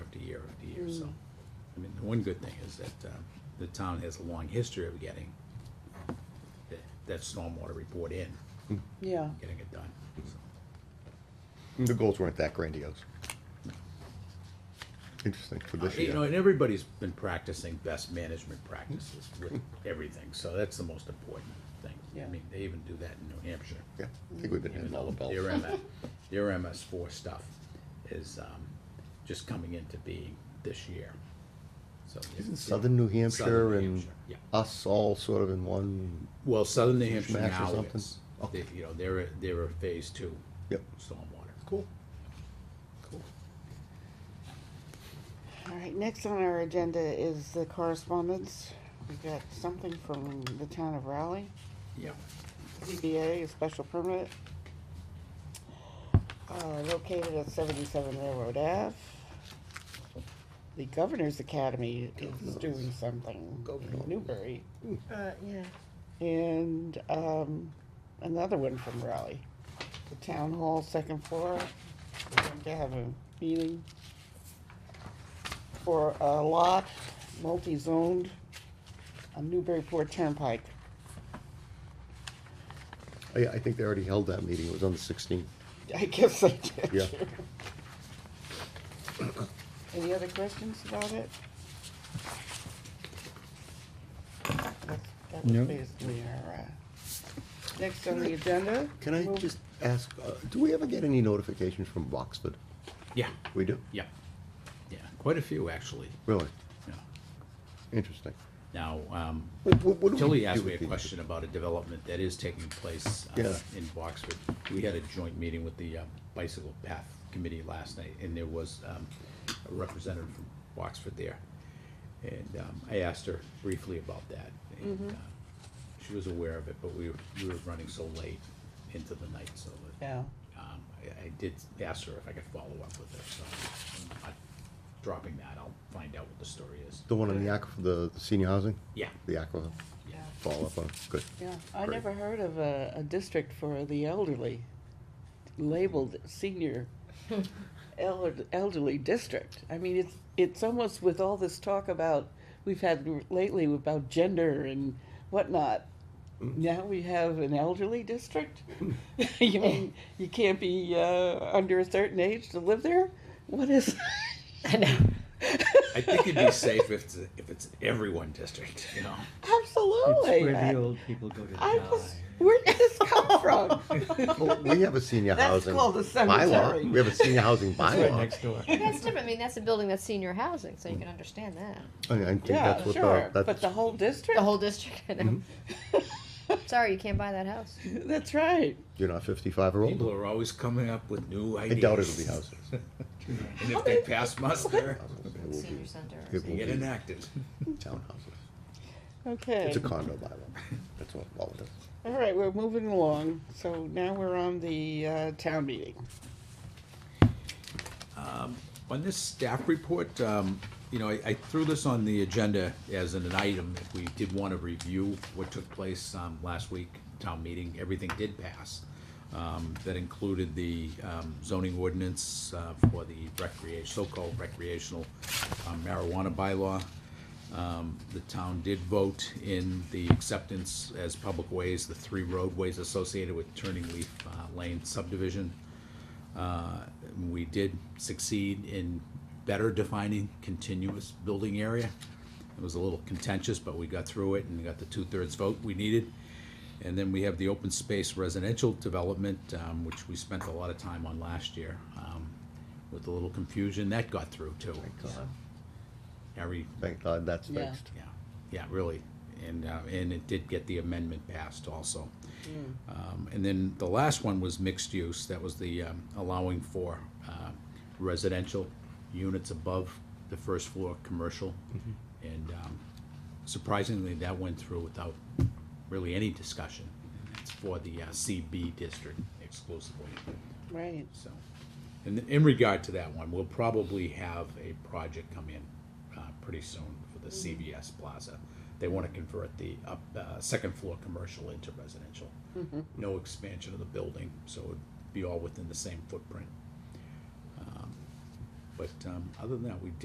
year after year, so. I mean, the one good thing is that, uh, the town has a long history of getting that, that stormwater report in, yeah. getting it done, so. The goals weren't that grandiose. Interesting for Uh, this You know, year. and everybody's been practicing best management practices with everything, so that's the most important thing. I Yeah. mean, they even do that in New Hampshire. Yeah, I think we've been Even hitting all the though bells. Their MS, their MS four stuff is, um, just coming into being this year, so. Isn't Southern New Hampshire and Yeah, us all sort of in one, well, Southern New Hampshire Max or now something? is, they, you know, they're, a- they're a phase two Yep. stormwater. cool. All right, next on our agenda is the correspondence. We got something from the town of Raleigh, Yeah, ZBA, a special permit. Uh, located at seventy-seven Railroad Ave. The Governor's Academy is doing something in Newbury. Uh, yeah. And, um, another one from Raleigh. The town hall, second floor, we're going to have a meeting for a lot, multi-zoned, on Newburyport Turnpike. I, I think they already held that meeting, it was on the sixteenth. I guess I did. Yeah. Any other questions about it? That's- That was No. basically our, uh, next on the agenda. Can I Move- just ask, uh, do we ever get any notifications from Boxford? yeah, We do? yeah, yeah, quite a few, actually, Really? yeah. Interesting. Now, um, What- what- what do we Tilly do asked me with a these? question about a development that is taking place uh, Yeah. in Boxford. We had a joint meeting with the uh, Bicycle Path Committee last night, and there was um, a representative from Boxford there. And um, I asked her briefly about that, and uh, she was aware of it, but we were, we were running so late into the night, so that, Yeah. um, I I did ask her if I could follow up with her, so I'm not dropping that, I'll find out what the story is. The one on the aqua, the the senior housing, Yeah, the aqua, yeah. follow up on, it. good. Yeah, I Great. never heard of a, a district for the elderly, labeled senior elder- elderly district. I mean, it's, it's almost with all this talk about, we've had lately about gender and whatnot. Mm. Now we have an elderly district? You mean, you can't be, uh, under a certain age to live there? What is? I know. I think it'd be safe if it's, if it's everyone district, you know. Absolutely. It's where the old people go to I die. was, where did this come from? Well, we have a senior That's housing called a cemetery. bylaw, we have a senior housing It's right bylaw. next door. That's different. I mean, that's a building that's senior housing, so you can understand that. I I think that's Yeah, what sure, the, but that's, the whole district? The whole district, I know. Sorry, you can't buy that house. That's right. you're not fifty-five or older. People are always coming up with new I ideas. doubt it'll be houses. And if they pass muster, It will Senior be center. or It they something. get enacted. townhouses. Okay. It's a condo bylaw, that's what, all it is. All right, we're moving along. So now we're on the uh, town meeting. On this staff report, um, you know, I, I threw this on the agenda as an item. If we did want to review what took place, um, last week, town meeting, everything did pass. Um, that included the, um, zoning ordinance, uh, for the recreation, so-called recreational um, marijuana bylaw. Um, the town did vote in the acceptance as public ways, the three roadways associated with Turning Leaf uh, Lane subdivision. Uh, We did succeed in better defining continuous building area. It was a little contentious, but we got through it and got the two-thirds vote we needed. And then we have the open space residential development, um, which we spent a lot of time on last year, um, with a little confusion, that got through too. Harry Thank God that's Yeah. fixed. yeah, yeah, really. And, uh, and it did get the amendment passed also. Um, and then the last one was mixed use, that was the, um, allowing for, uh, residential units above the first floor, commercial. And, um, surprisingly, that went through without really any discussion. It's for the uh, CB district exclusively. Right. So, in, in regard to that one, we'll probably have a project come in, uh, pretty soon for the CVS Plaza. They wanna convert the up, uh, second floor commercial into residential. No expansion of the building, so it'd be all within the same footprint. Um, But, um, other than that, we did.